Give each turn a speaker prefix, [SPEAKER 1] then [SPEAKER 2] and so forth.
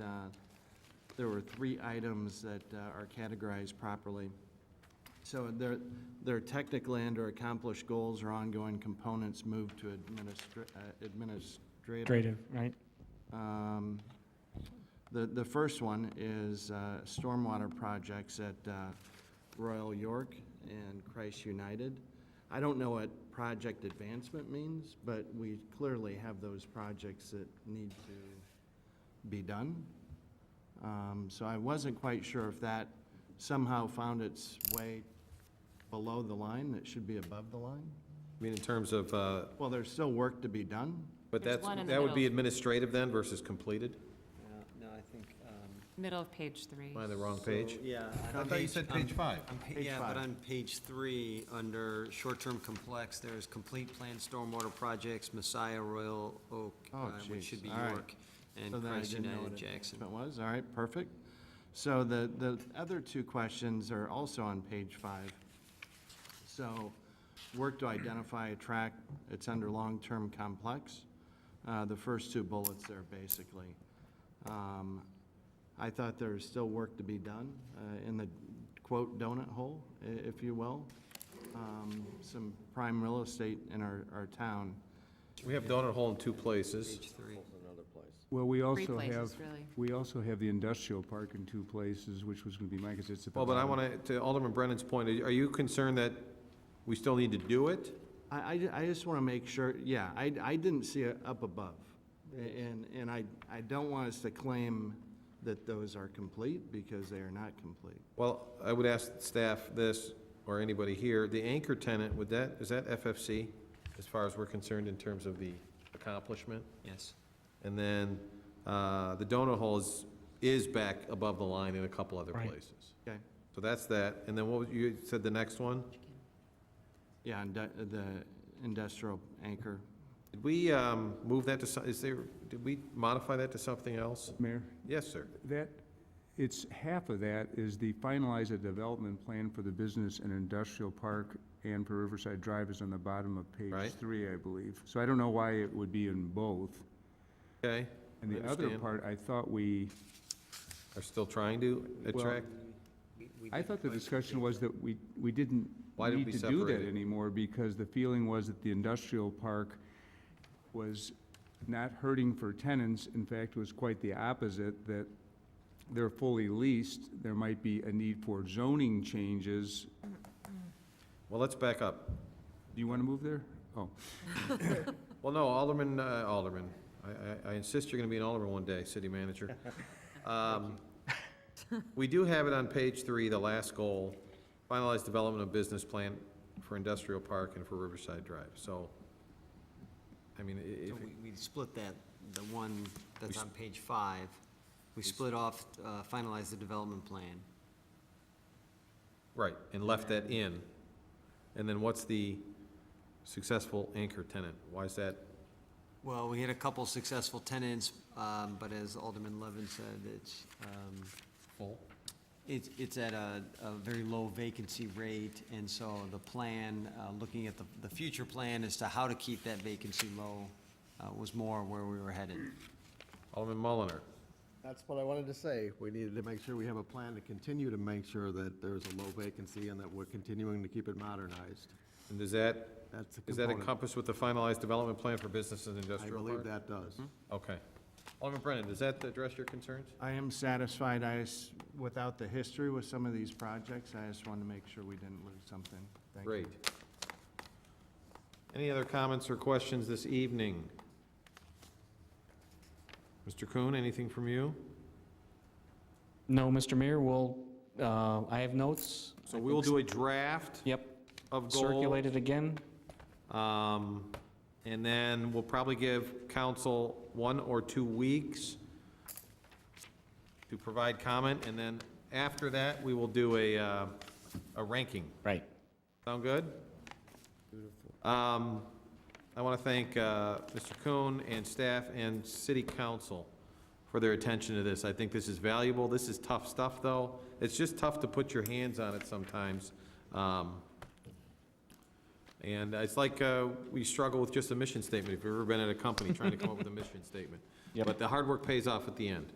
[SPEAKER 1] uh, there were three items that uh, are categorized properly. So their, their technical and/or accomplished goals or ongoing components moved to administra- uh, administrative.
[SPEAKER 2] Creative, right?
[SPEAKER 1] Um, The, the first one is uh, stormwater projects at uh, Royal York and Christ United. I don't know what project advancement means, but we clearly have those projects that need to be done. Um, So I wasn't quite sure if that somehow found its way below the line, that should be above the line.
[SPEAKER 3] I mean, in terms of, uh,
[SPEAKER 1] Well, there's still work to be done.
[SPEAKER 3] but
[SPEAKER 4] There's
[SPEAKER 3] that's,
[SPEAKER 4] one in the
[SPEAKER 3] that would be
[SPEAKER 4] middle.
[SPEAKER 3] administrative then versus completed?
[SPEAKER 5] No, I think, um.
[SPEAKER 4] Middle of page three.
[SPEAKER 3] Am I on the wrong page?
[SPEAKER 5] Yeah.
[SPEAKER 1] I thought you said
[SPEAKER 5] on-
[SPEAKER 3] page five.
[SPEAKER 5] on pa-
[SPEAKER 1] Page
[SPEAKER 5] Yeah,
[SPEAKER 1] five.
[SPEAKER 5] but on page three, under short-term complex, there's complete planned stormwater projects, Messiah, Royal Oak,
[SPEAKER 1] Oh,
[SPEAKER 5] uh, which should
[SPEAKER 1] jeez.
[SPEAKER 5] be
[SPEAKER 1] All right.
[SPEAKER 5] York, and
[SPEAKER 1] So then I
[SPEAKER 5] Christ
[SPEAKER 1] didn't know
[SPEAKER 5] United
[SPEAKER 1] what
[SPEAKER 5] Jackson.
[SPEAKER 1] advancement was, all right, perfect. So the, the other two questions are also on page five. So, work to identify a track, it's under long-term complex, Uh, the first two bullets there, basically. Um, I thought there was still work to be done uh, in the quote donut hole, i- if you will. Um, Some prime real estate in our, our town.
[SPEAKER 3] We have donut hole in two places.
[SPEAKER 5] Page three.
[SPEAKER 6] Well, we
[SPEAKER 4] Three
[SPEAKER 6] also have,
[SPEAKER 4] places, really.
[SPEAKER 6] we also have the industrial park in two places, which was gonna be mine, 'cause it's at the
[SPEAKER 3] Well, but I
[SPEAKER 6] bottom.
[SPEAKER 3] want to, to Alderman Brennan's point, are you concerned that we still need to do it?
[SPEAKER 1] I, I ju- I just want to make sure, yeah, I, I didn't see it up above. A- And, and I, I don't want us to claim that those are complete, because they are not complete.
[SPEAKER 3] Well, I would ask staff this, or anybody here, the anchor tenant, would that, is that FFC, as far as we're concerned, in terms of the accomplishment?
[SPEAKER 5] Yes.
[SPEAKER 3] And then, uh, the donut hole is, is back above the line in a couple other
[SPEAKER 2] Right.
[SPEAKER 3] places.
[SPEAKER 1] Okay,
[SPEAKER 3] So that's that, and then what, was- you said the next one?
[SPEAKER 1] yeah, and the- the industrial anchor.
[SPEAKER 3] Did we um, move that to, so- is there, did we modify that to something else?
[SPEAKER 6] Mayor,
[SPEAKER 3] Yes, sir.
[SPEAKER 6] that, it's, half of that is the finalize a development plan for the business and industrial park and for Riverside Drive is on the bottom of
[SPEAKER 3] Right.
[SPEAKER 6] page three, I believe. So I don't know why it would be in both.
[SPEAKER 3] Okay,
[SPEAKER 6] And the
[SPEAKER 3] I
[SPEAKER 6] other
[SPEAKER 3] understand.
[SPEAKER 6] part, I thought we,
[SPEAKER 3] are still trying to attract?
[SPEAKER 6] I thought the discussion was that we, we didn't
[SPEAKER 3] Why did we
[SPEAKER 6] need to do
[SPEAKER 3] separate
[SPEAKER 6] that
[SPEAKER 3] it?
[SPEAKER 6] anymore, because the feeling was that the industrial park was not hurting for tenants, in fact, was quite the opposite, that they're fully leased, there might be a need for zoning changes.
[SPEAKER 3] Well, let's back up.
[SPEAKER 6] Do you want to move there? Oh,
[SPEAKER 3] Well, no, Alderman, uh, Alderman, I- I I insist you're going to be an Alderman one day, city manager. Um, We do have it on page three, the last goal, finalize development of business plan for industrial park and for Riverside Drive, so, I mean, i-
[SPEAKER 5] So
[SPEAKER 3] if,
[SPEAKER 5] we, we split that, the one that's on page five, we split off, uh, finalize the development plan.
[SPEAKER 3] right, and left that in, and then what's the successful anchor tenant? Why is that
[SPEAKER 5] Well, we had a couple successful tenants, um, but as Alderman Levin said, it's, um,
[SPEAKER 3] full?
[SPEAKER 5] It's, it's at a, a very low vacancy rate, and so the plan, uh, looking at the, the future plan as to how to keep that vacancy low, uh, was more where we were headed.
[SPEAKER 3] Alderman Mulliner.
[SPEAKER 7] That's what I wanted to say. We needed to make sure we have a plan to continue to make sure that there's a low vacancy and that we're continuing to keep it modernized.
[SPEAKER 3] And does that,
[SPEAKER 7] That's a
[SPEAKER 3] is that
[SPEAKER 7] component.
[SPEAKER 3] encompassed with the finalized development plan for business and
[SPEAKER 7] I
[SPEAKER 3] industrial park?
[SPEAKER 7] believe that does.
[SPEAKER 3] Hmm? Okay. Alderman Brennan, does that address your concerns?
[SPEAKER 1] I am satisfied, I, s- without the history with some of these projects, I just wanted to make sure we didn't lose something. Thank you.
[SPEAKER 3] Great. Any other comments or questions this evening? Mr. Kuhn, anything from you?
[SPEAKER 2] No, Mr. Mayor, we'll, uh, I have notes.
[SPEAKER 3] So we will do a draft
[SPEAKER 2] Yep,
[SPEAKER 3] of goal.
[SPEAKER 2] circulate it again.
[SPEAKER 3] Um, And then we'll probably give council one or two weeks to provide comment, and then after that, we will do a, uh, a ranking.
[SPEAKER 2] Right.
[SPEAKER 3] Sound good? Um, I want to thank uh, Mr. Kuhn and staff and city council for their attention to this. I think this is valuable. This is tough stuff, though. It's just tough to put your hands on it sometimes. Um, And it's like uh, we struggle with just a mission statement, if you've ever been at a company trying to come up with a mission statement.
[SPEAKER 2] Yep.
[SPEAKER 3] But the hard work pays off at the end.